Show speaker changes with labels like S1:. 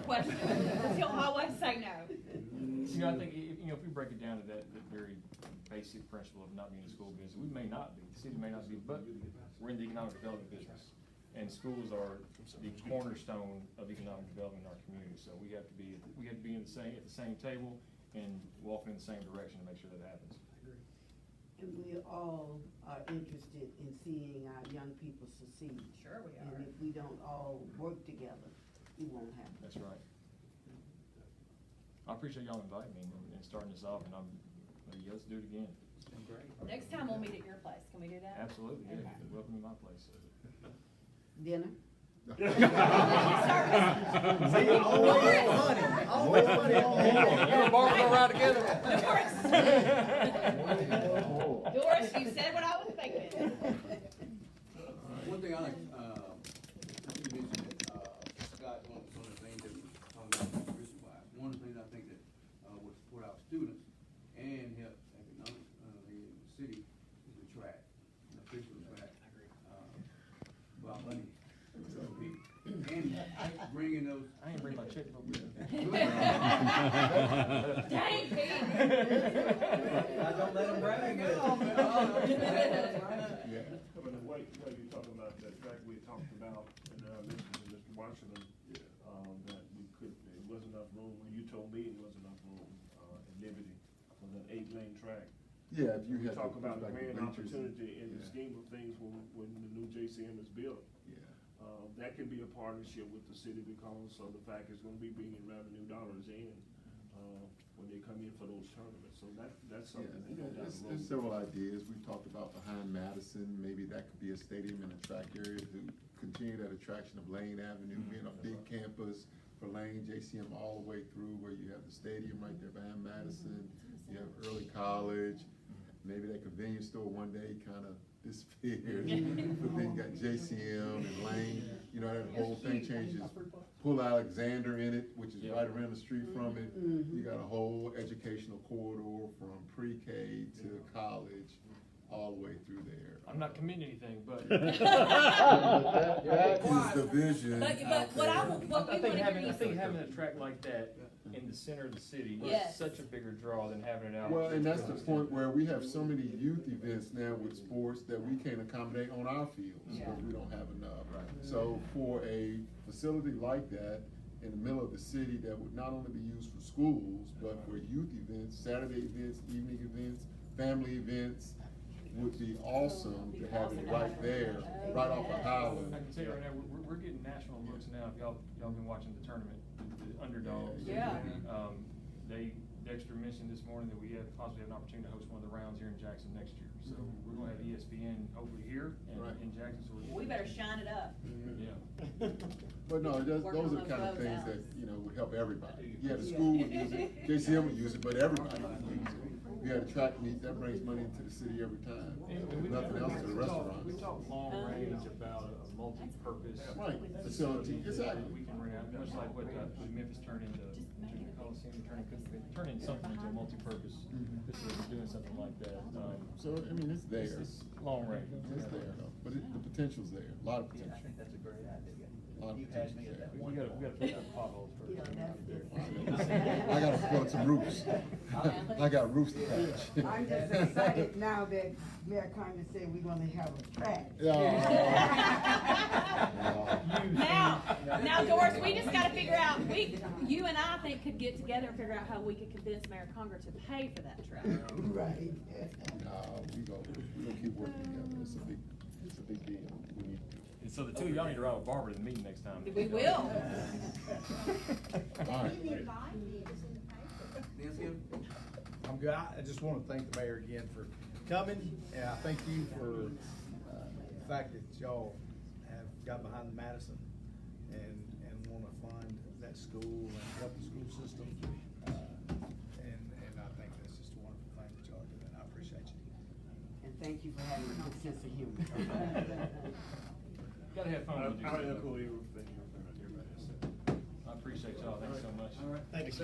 S1: you know, I think, if, you know, if we break it down to that, that very basic principle of not being a school business, we may not be, the city may not be, but we're in the economic development business. And schools are the cornerstone of economic development in our community, so we have to be, we have to be in the same, at the same table and walking in the same direction to make sure that happens.
S2: And we all are interested in seeing our young people succeed.
S3: Sure we
S2: And
S3: are.
S2: if we don't all work together, it won't happen.
S1: That's right. I appreciate y'all inviting me and- and starting this off, and I'm, yeah, let's do it again.
S3: Next time we'll meet at your place, can we do that?
S1: Absolutely, yeah,
S3: Okay.
S1: welcome to my place.
S2: Dinner?
S4: Always funny, always funny.
S3: Doris. Doris, you said what I was thinking.
S5: One thing I like, uh, you mentioned that, uh, Scott, one one of the things that we talked about was risk wise. One of the things I think that, uh, would support our students and help economic, uh, the city is the track, the official track. I agree. About money, so we, and bringing those.
S1: I ain't bring my checkbook with me.
S3: Dang, Pete.
S4: I don't let them brag.
S6: I mean, the way, the way you're talking about that fact we talked about, and I mentioned to Mr. Washington, um, that we could, there wasn't enough room, when you told me it wasn't enough room, uh, in Liberty, for that eight-lane track.
S7: Yeah, if you
S6: We
S7: had.
S6: talk
S7: the-
S6: about the
S7: like the
S6: grand
S7: bleachers and-
S6: opportunity in the
S7: yeah,
S6: scheme of things when, when the new JCM is built.
S7: Yeah,
S6: Uh, that can be a partnership with the city because of the fact it's gonna be bringing revenue dollars in, uh, when they come in for those tournaments, so that, that's something that
S7: yeah.
S6: goes down
S7: There's,
S6: the
S7: there's
S6: road.
S7: several ideas. We talked about behind Madison, maybe that could be a stadium and a track area to continue that attraction of Lane Avenue,
S6: Mm-hmm.
S7: being a big campus for Lane, JCM all the way through where you have the stadium right there behind
S6: Mm-hmm.
S7: Madison. You have early college, maybe that convenience store one day kind of disappeared. But then you got JCM and Lane, you know, that whole thing changes. Pull Alexander in it, which is
S1: Yeah.
S7: right around the street from it.
S3: Mm-hmm.
S2: Mhm.
S7: You got a whole educational corridor from pre-K to college, all the way through there.
S1: I'm not committing anything, but
S7: That that is the vision
S3: But, but
S7: out
S3: what I,
S7: there.
S3: wa- what
S1: I
S3: we
S1: think
S3: wanna
S1: having,
S3: hear
S1: I
S3: you
S1: think having a track like that in the center of the city is
S3: Yes.
S1: such a bigger draw than having it out.
S7: Well, and that's the point where we have so many youth events now with sports that we can't accommodate on our fields,
S3: Yeah.
S7: because we don't have enough. So for a facility like that in the middle of the city that would not only be used for schools, but for youth events, Saturday events, evening events, family events, would be awesome to have it right there, right off of
S1: I
S7: Highland.
S1: can tell you right now, we're, we're- we're getting national looks now, if y'all, y'all been watching the tournament, the- the underdogs.
S3: Yeah.
S1: Um, they, Dexter mentioned this morning that we have, possibly have an opportunity to host one of the rounds here in Jackson next year. So we're gonna have E ESPN over here and
S7: Right.
S1: in Jackson, so we're.
S3: We better shine it up.
S1: Yeah.
S7: But no, those,
S3: Working
S7: those are
S3: on
S7: the kind of
S3: those
S7: things that,
S3: outs.
S7: you know, would help everybody. Yeah, the school would use it, JCM would use it, but everybody would use it. We had a track meet, that brings money into the city every time,
S1: And we-
S7: If nothing else to the
S1: we talked- We
S7: restaurants.
S1: talked long range about a multi-purpose.
S7: Right, facility, exactly.
S1: that We can rent out, much like what uh, what Memphis turned into, to the Coliseum, turning, turning something into a multi-purpose.
S7: Mhm.
S1: This is doing something like that. um,
S7: So, I mean, it's there,
S1: It's, it's long range.
S7: it's there, but it- the potential's there, a lot of potential.
S4: that's a great
S7: Lot
S4: idea.
S7: of You had me at that
S1: We gotta, we gotta put up potholes
S2: You know,
S1: first.
S2: that's it.
S7: I gotta plug some roofs, I got roofs to patch.
S2: I'm just excited now that Mayor Carmen said we're gonna have a track.
S3: Now, now Doris, we just gotta figure out, we, you and I think could get together and figure out how we could convince Mayor Conger to pay for that truck.
S2: Right.
S7: Nah, we go, we gonna keep working together, it's a big, it's a big deal, we need to do it.
S1: And so the two of y'all need to ride with Barbara to the meeting next time.
S3: We will.
S7: All right.
S4: I'm good. I I just want to thank the mayor again for coming, and I thank you for uh, the fact that y'all have got behind the Madison and, and want to fund that school and help the school system. Uh, And, and I think that's just a wonderful thing that y'all are doing. I appreciate you.
S2: And thank you for having a good sense of humor.
S1: Gotta have
S6: I
S1: fun with
S6: I
S1: you.
S6: echo everything everybody said.
S1: I appreciate y'all, thanks so much.
S4: Thank you,